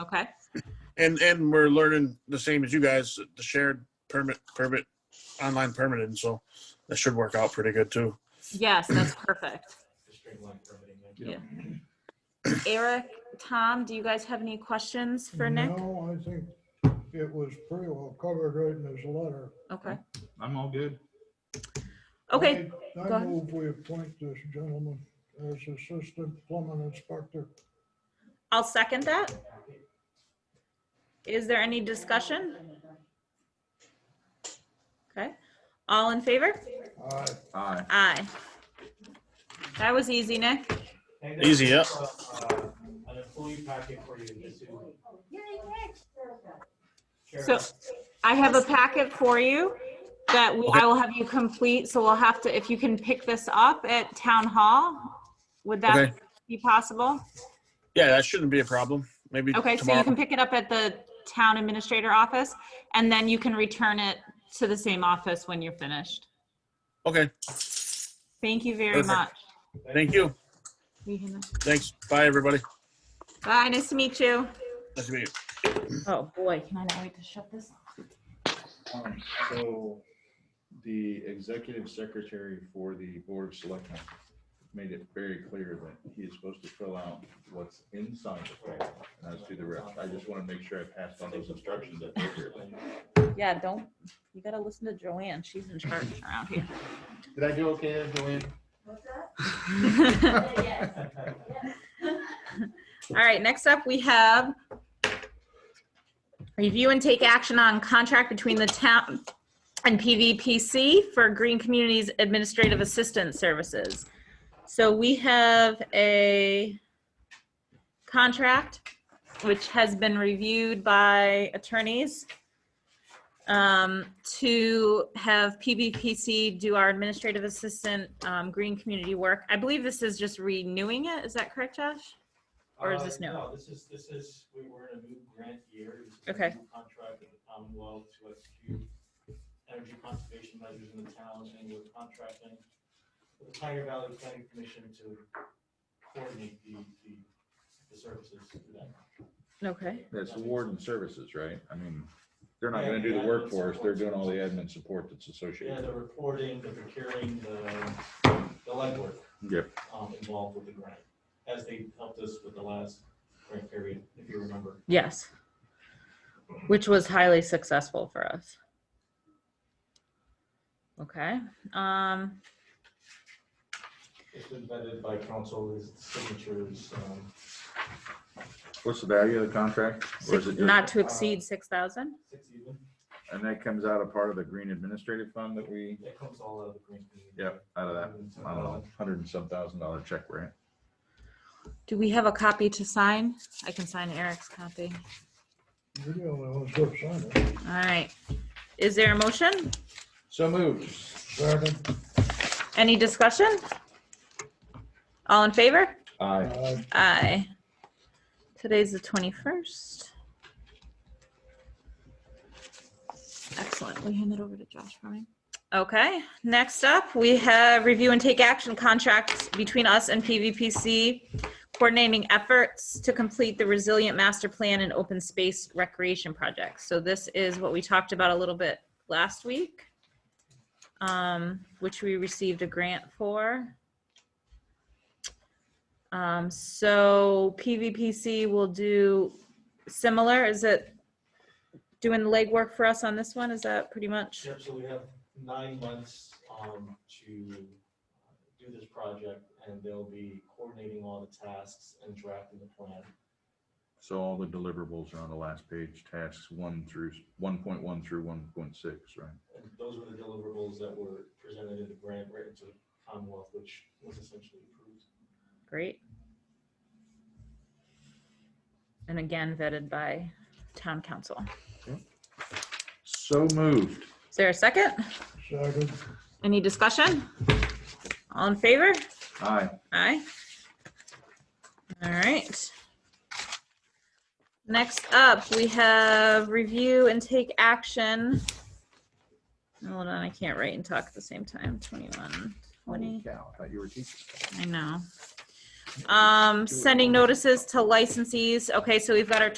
Okay, And, and we're learning the same as you guys, the shared permit, permit, online permitting, so that should work out pretty good too. yes, that's perfect. Yeah. Eric, Tom, do you guys have any questions for Nick? No, I think it was pretty well covered right in his letter. Okay, I'm all good. okay, go I- I ahead. move we appoint this gentleman as assistant plumbing inspector. I'll second that. Is there any discussion? Okay, all in favor? Aye. Aye. Aye. That was easy, Nick. And Easy, there's also, uh, An employee packet for you to see. So I have a packet for you that we- I will have you complete, so we'll have to, if you can pick this up at town hall, would Okay. that be possible? Yeah, that shouldn't be a problem. Maybe Okay, so you can tomorrow. pick it up at the town administrator office, and then you can return it to the same office when you're finished. Okay, Thank you very Perfect. much. thank you. Thanks. Bye, everybody. Bye, nice to meet you. Nice to meet you. Oh, boy, can I not wait to shut this? Um, So the executive secretary for the Board of Selectmen made it very clear that he is supposed to fill out what's inside the form, and I do the rest. I just want to make sure I passed on those instructions. that were here. Yeah, don't, you gotta listen to Joanne, she's in charge around here. Did I do okay, there, Joanne? All right, next up, we have review and take action on contract between the town and PVPC for Green Communities Administrative Assistance Services. So we have a contract which has been reviewed by attorneys um, to have PVPC do our administrative assistant um, green community work. I believe this is just renewing it. Is that correct, Josh? Or is Uh, this new? No, this is, this is, we were in a new grant year. This is a Okay. new Contract with the Commonwealth to execute energy conservation measures in the town and we're contracting with the Pioneer Valley Planning Commission to coordinate the, the, the services for that. Okay. That's warden services, right? I mean, they're not going to do the work for us. They're doing all the admin support that's Yeah, associated. the reporting, the procuring, the, the legwork. Yep. um, involved with the grant, as they helped us with the last grant period, if you remember. Yes. Which was highly successful for us. Okay, um, It's been vetted by council, his signatures, um, What's the value of the contract? Or is it six- just- not to exceed six thousand? six even, And that comes out of part of the green administrative fund that we, that comes all out of the grant. community. yep, out of that, I don't know, hundred and some thousand dollar check, right? Do we have a copy to sign? I can sign Eric's copy. You're the only ones who signed uh, it. All right. Is there a motion? So moved. Second. Any discussion? All in favor? Aye. Aye. Aye. Today's the 21st. Excellent. We hand that over to Josh for me. Okay, next up, we have review and take action contracts between us and PVPC coordinating efforts to complete the resilient master plan and open space recreation project. So this is what we talked about a little bit last week, um, which we received a grant for. Um, so PVPC will do similar, is it doing the legwork for us on this one? Is that pretty much? Yep, so we have nine months, um, to uh, do this project, and they'll be coordinating all the tasks and drafting the plan. So all the deliverables are on the last page, tasks one through, one point one through one point six, right? And those were the deliverables that were presented in the grant written to the Commonwealth, which was essentially approved. Great. And again vetted by town council. So moved. Is there a second? Second. Any discussion? All in favor? Aye. Aye. All right. Next up, we have review and take action. Hold on, I can't write and talk at the same time. 21, 20. Holy cow, I thought you were teaching. Um, I know. Um, sending notices to licensees. Okay, so we've got our